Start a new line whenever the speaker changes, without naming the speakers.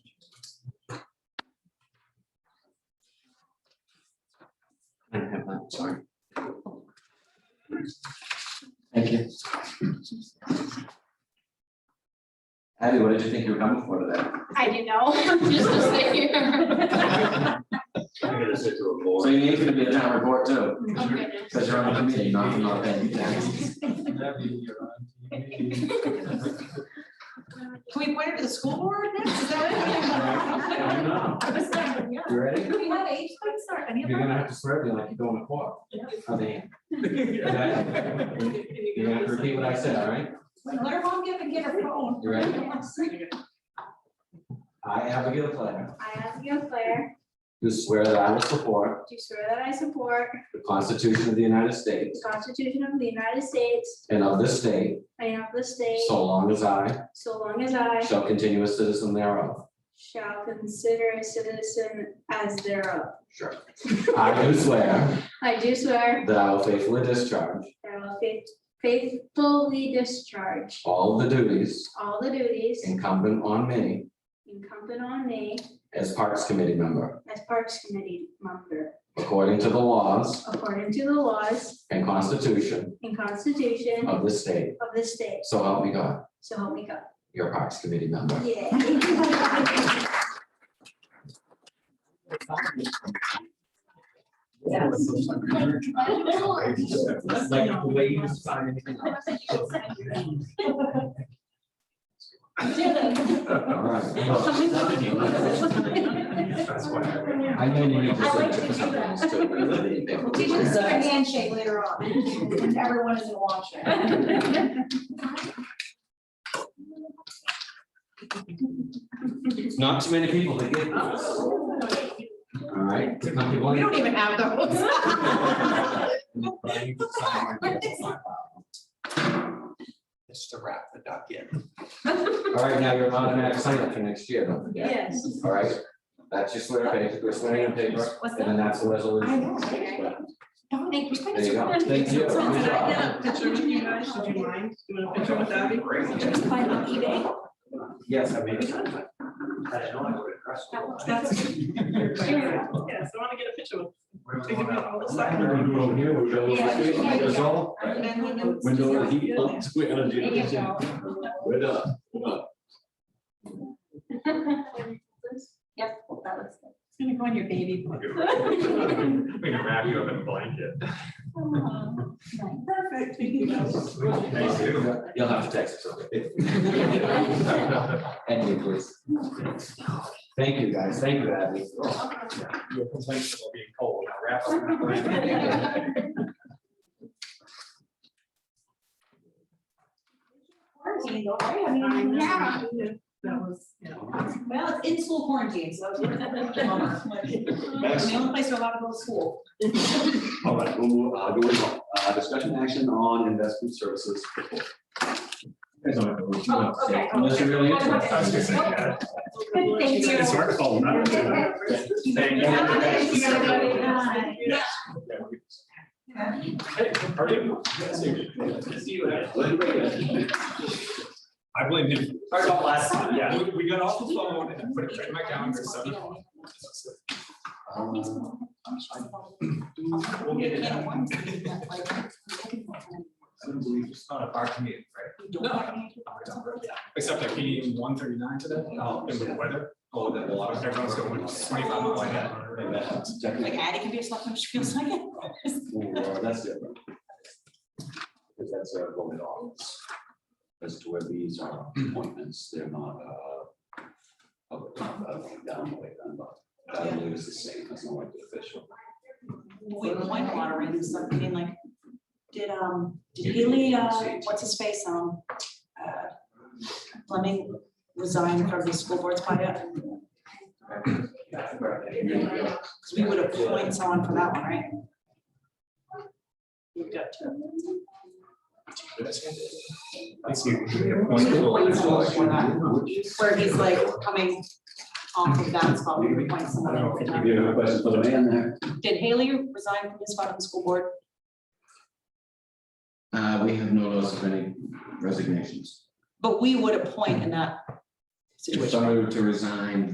sorry. Thank you.
Abby, what did you think you were coming for today?
I didn't know, just to sit here.
I'm gonna sit to a
So
board.
you need to be the town report too,
Oh, goodness.
because you're on the committee, not, not paying you taxes.
Can we point it to the school board next? Is that
know. You ready?
it? We have age, we start any
You're gonna have to swear me like you're going to court. I mean, you're gonna have to repeat what I said, all right?
Let her mom give and get her phone.
You ready? I, Abigail Clare,
I, Abigail Claire,
do swear that I will support
do swear that I support
the Constitution of the United
the
States
Constitution of the United States
and of this state,
and of the state,
so long as I
so long as I
shall continue a citizen thereof.
shall consider a citizen as thereof.
Sure. I do swear
I do swear
that I will faithfully discharge
that I will faith- faithfully discharge
all the duties
all the duties
incumbent on me
incumbent on me
as Parks Committee member,
as Parks Committee member,
according to the laws
according to the laws
and Constitution
and Constitution
of this state.
of the state,
So help me God,
so help me God.
your Parks Committee member.
Yeah.
Like, way you sign anything up. All right.
That's why I went.
I know you need to.
I like
sit
to do
for
that.
something else,
Teach
too.
us a handshake later on. Everyone is watching.
It's Not too many people that get this. All right. Not people-
We don't even have those.
Just to wrap the duck in.
All right, now you're an automatic sign up for next year, don't forget.
Yes.
All right, that's your swear page, you're swearing on paper,
What's
and
that?
then that's the
I
resolution.
know. right? Don't make me think
There you go. Thank you.
Something
Good
I
job.
did.
Picture with you guys, would you mind doing a picture with Abby?
Just find on eBay.
Yes, I mean.
That's.
Yes, I want to get a picture with. taking out all the stuff.
And women-
Window and heat pump, we energy.
There you go.
We're done.
Yep, that was it.
It's gonna go on your baby. book.
We can wrap you up in a blanket.
Perfect. Yes.
Thank you.
You'll have to text us, okay? And me, please. Thank you, guys, thank you, Abby.
Your complaints will be cold. Now wrap up in a blanket.
Quarantine, don't worry, I mean,
Yeah.
That was, you know.
Well, it's in school quarantine, so. it's worth it. It's the only place you're allowed to go to school.
All right, we'll move, uh, going on, uh, discussion action on investment services. report.
Guys don't have to worry too much.
Oh, okay.
Unless you're really interested.
I was gonna say, yeah.
Thank you.
It's our fault, not yours. Thank you.
Bye.
Yes. Hey, how are you? Good to see you. Good to see you. I blame him. Talked about last time. Yeah, we, we got off the phone and put it right in my calendar, so.
Uh,
We'll get it. done. I don't believe it's not a bar commute, right? No. Except I came one thirty-nine today, and with the weather, oh, that water, everyone's going twenty-five mile an
And
hour.
that's definitely-
Like Addie can be a slut when she feels like it.
Ooh, uh, That's different. Because that's a voted office. As to where these are appointments, they're not, uh, up- up, down, way down, but I believe it's the same, that's not like the official.
We were wine watering and stuff, I mean, like, did, um, did Haley, uh, what's his face, um, uh, Fleming resign from the school board's by yet? Because we would appoint someone for that one, right? We've got two.
It's you. you appoint people and it's all like-
Where he's like coming off of that spot, we would appoint
I
someone.
don't
for
think
that.
you do.
have a question for the man there?
Did Haley resign from his spot on the school board?
Uh, we have no loss of any resignations.
But we would appoint in that
If
situation.
somebody were to resign,